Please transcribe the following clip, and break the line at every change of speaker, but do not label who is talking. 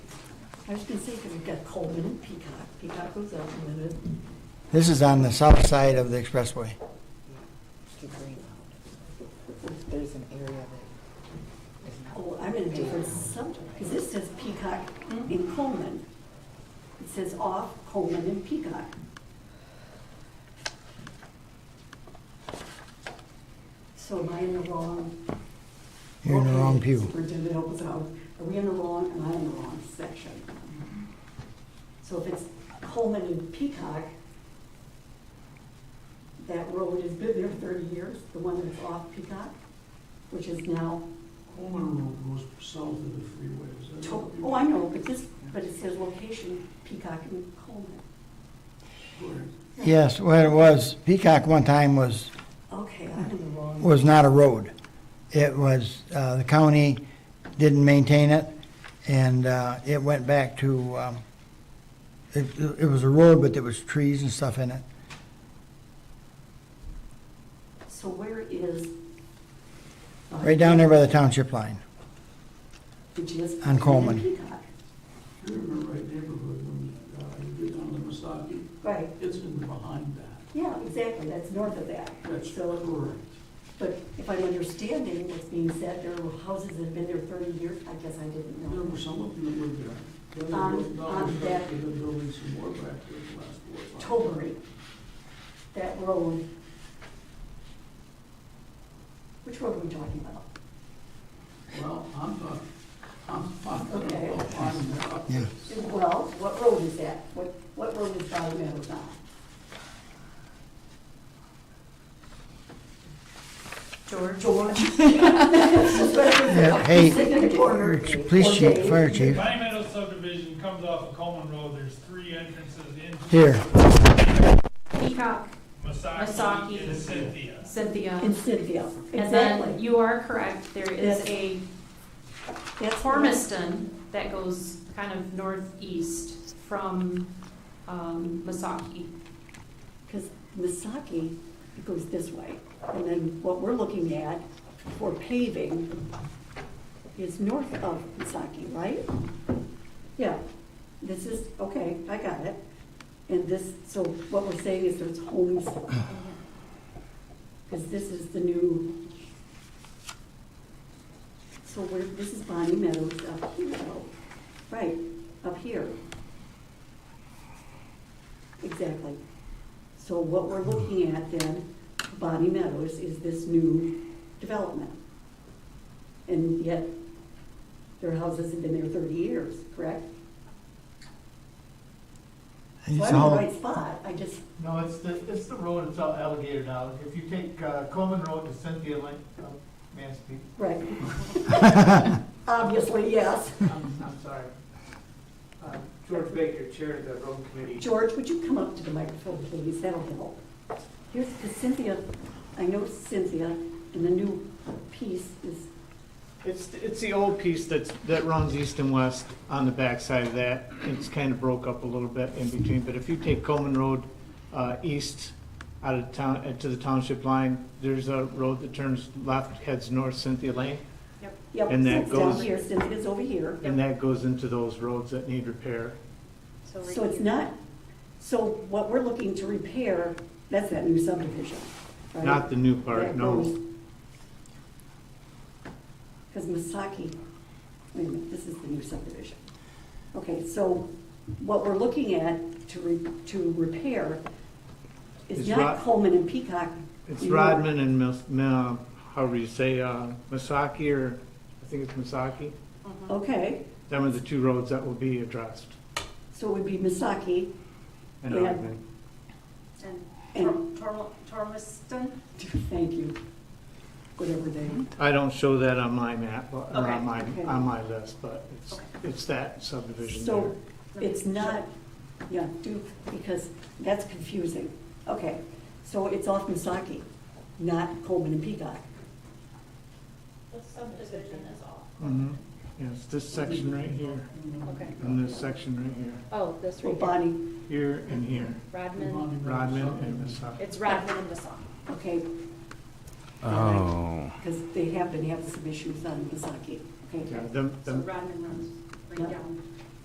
I was gonna say, because we've got Coleman and Peacock, Peacock goes out in a minute.
This is on the south side of the expressway.
It's too green out. There's an area that is not.
Oh, I'm in a different sub, because this says Peacock
Hmm?
in Coleman. It says off Coleman and Peacock. So am I in the wrong?
You're in the wrong
Okay,
pew.
Superintendent, help us out. Are we in the wrong, am I in the wrong section? So if it's Coleman and Peacock, that road has been there thirty years, the one that's off Peacock, which is now
Coleman Road goes south of the freeway, is that?
To-
what you-
Oh, I know, but this, but it says location Peacock and Coleman.
Correct.
Yes, well, it was, Peacock one time was,
Okay, I'm in the wrong.
was not a road. It was, uh, the county didn't maintain it, and, uh, it went back to, um, it, it was a road, but there was trees and stuff in it.
So where is? uh,
Right down there by the township line.
Which is?
on Coleman.
Peacock.
You're in the right neighborhood when uh, you get down to Misaki.
Right,
It's in the behind that.
yeah, exactly, that's north of that.
That's
So,
correct.
but if I'm understanding what's being said, there were houses that have been there thirty years, I guess I didn't
There
know.
were some of them that lived there. Then they
Um,
moved down
um,
and
that-
started to building some more back there the last four or five.
Tolbury, that road. Which road are we talking about?
Well, I'm not, I'm not gonna
Okay.
go on that. up
Yeah.
Well, what road is that? What, what road is Valley Meadows on? George. George.
Yeah, Hey, police chief, fire chief,
Valley Meadows subdivision comes off of Coleman Road, there's three entrances into.
Here.
Peacock,
Masaki
Masaki.
and Cynthia.
Cynthia.
In Cynthia,
And then
exactly.
you are correct, there is
Yes.
a
That's
Tormiston that goes kind of northeast from um, Masaki.
Because Misaki, it goes this way. And then what we're looking at for paving is north of Misaki, right? Yeah, this is, okay, I got it. And this, so what we're saying is there's homes. Because this is the new, so we're, this is Bonnie Meadows up here, though. right, up here. Exactly. So what we're looking at then, Bonnie Meadows, is this new development. And yet, their houses have been there thirty years, correct? So
It's
I'm in the
all-
right spot, I just,
No, it's the, it's the road, it's all alligator now. If you take uh, Coleman Road to Cynthia Lane, uh, Mansfield,
right. Obviously, yes.
I'm, I'm sorry. Uh, George Baker, Chair of the Road Committee.
George, would you come up to the microphone, please, that'll help. Here's Cynthia, I know Cynthia, and the new piece is,
It's, it's the old piece that's, that runs east and west on the backside of that. It's kind of broke up a little bit in between, but if you take Coleman Road, uh, east out of town, uh, to the township line, there's a road that turns left, heads north Cynthia Lane,
yep,
And that
it's down
goes-
here, Cynthia's over here.
and that goes into those roads that need repair.
So it's not, so what we're looking to repair, that's that new subdivision, right?
Not the new
That
part, no.
goes- Cause Misaki, wait a minute, this is the new subdivision. Okay, so what we're looking at to re, to repair is
It's
not
Rod-
Coleman and Peacock.
It's
anymore.
Rodman and Mis, Ma- however you say, uh, Misaki or, I think it's Misaki.
Okay,
Them are the two roads that will be addressed.
so it would be Misaki
and
Yeah.
Ogden.
and,
Tormiston?
thank you, whatever they,
I don't show that on my map, or
Okay,
on my,
okay.
on my list, but it's,
Okay.
it's that subdivision
So-
there.
It's not, yeah, do, because that's confusing. Okay, so it's off Misaki, not Coleman and Peacock.
The subdivision is off.
Mhm. Yeah, it's this section right here,
Okay.
and this section right
Oh, this
Well,
right here.
Bonnie,
here, here and here,
Rodman,
Rodman and Misaki.
it's Rodman and Masaki.
okay.
Oh.
Because they have been having some issues on Misaki, okay?
Yeah, them,
So
them,
Rodman runs right
Yeah.
down